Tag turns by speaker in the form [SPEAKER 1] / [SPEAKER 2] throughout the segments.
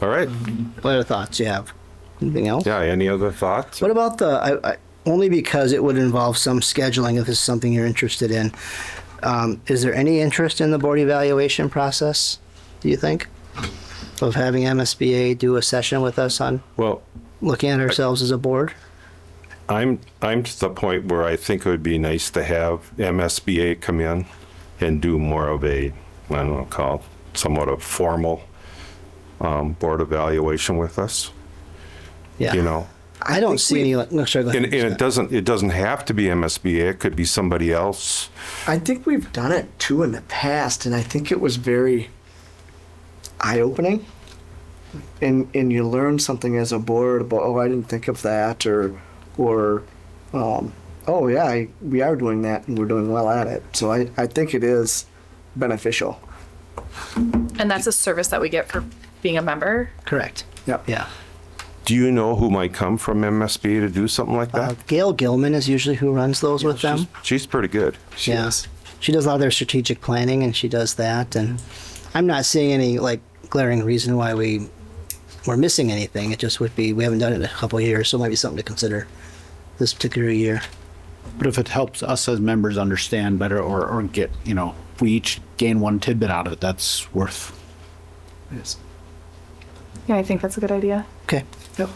[SPEAKER 1] All right.
[SPEAKER 2] What other thoughts you have? Anything else?
[SPEAKER 1] Yeah. Any other thoughts?
[SPEAKER 2] What about the, I, I, only because it would involve some scheduling if this is something you're interested in. Um, is there any interest in the board evaluation process, do you think? Of having MSBA do a session with us on
[SPEAKER 1] Well,
[SPEAKER 2] looking at ourselves as a board?
[SPEAKER 1] I'm I'm to the point where I think it would be nice to have MSBA come in and do more of a I don't know call it somewhat of formal um, board evaluation with us. You
[SPEAKER 2] Yeah.
[SPEAKER 1] know,
[SPEAKER 2] I don't see any, no, sorry, go
[SPEAKER 1] and,
[SPEAKER 2] ahead.
[SPEAKER 1] and it doesn't it doesn't have to be MSBA. It could be somebody else.
[SPEAKER 3] I think we've done it too in the past, and I think it was very eye opening. And and you learn something as a board about oh I didn't think of that or or um, oh yeah I, we are doing that and we're doing well at it. So I, I think it is beneficial.
[SPEAKER 4] And that's a service that we get for being a member.
[SPEAKER 2] Correct.
[SPEAKER 3] Yep.
[SPEAKER 2] Yeah.
[SPEAKER 1] Do you know who might come from MSBA to do something like
[SPEAKER 2] Uh,
[SPEAKER 1] that?
[SPEAKER 2] Gail Gilman is usually who runs those with them.
[SPEAKER 1] She's pretty good.
[SPEAKER 3] She
[SPEAKER 2] Yeah.
[SPEAKER 3] is.
[SPEAKER 2] She does a lot of their strategic planning and she does that. And I'm not seeing any like glaring reason why we we're missing anything. It just would be we haven't done it in a couple of years, so it might be something to consider this particular year.
[SPEAKER 5] But if it helps us as members understand better or, or get, you know, if we each gain one tidbit out of it, that's worth.
[SPEAKER 3] Yes.
[SPEAKER 4] Yeah, I think that's a good idea.
[SPEAKER 2] Okay.
[SPEAKER 3] Yep.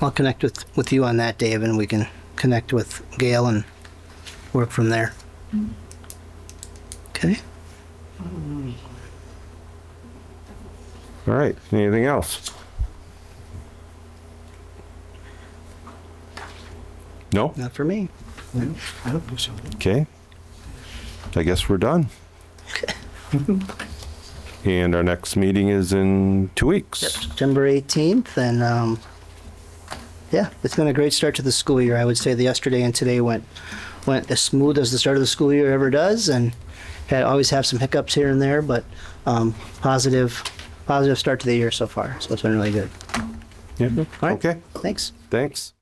[SPEAKER 2] I'll connect with with you on that, Dave, and we can connect with Gail and work from there.
[SPEAKER 3] Mm-hmm.
[SPEAKER 2] Okay.
[SPEAKER 1] All right. Anything else? No.
[SPEAKER 2] Not for me.
[SPEAKER 3] I don't think so.
[SPEAKER 1] Okay. I guess we're done. And our next meeting is in two weeks.
[SPEAKER 2] September 18th, and um, yeah, it's been a great start to the school year. I would say the yesterday and today went went as smooth as the start of the school year ever does, and had always have some hiccups here and there, but um, positive positive start to the year so far. So it's been really good.
[SPEAKER 1] Yeah.
[SPEAKER 2] All right.
[SPEAKER 1] Okay,
[SPEAKER 2] Thanks.
[SPEAKER 1] thanks.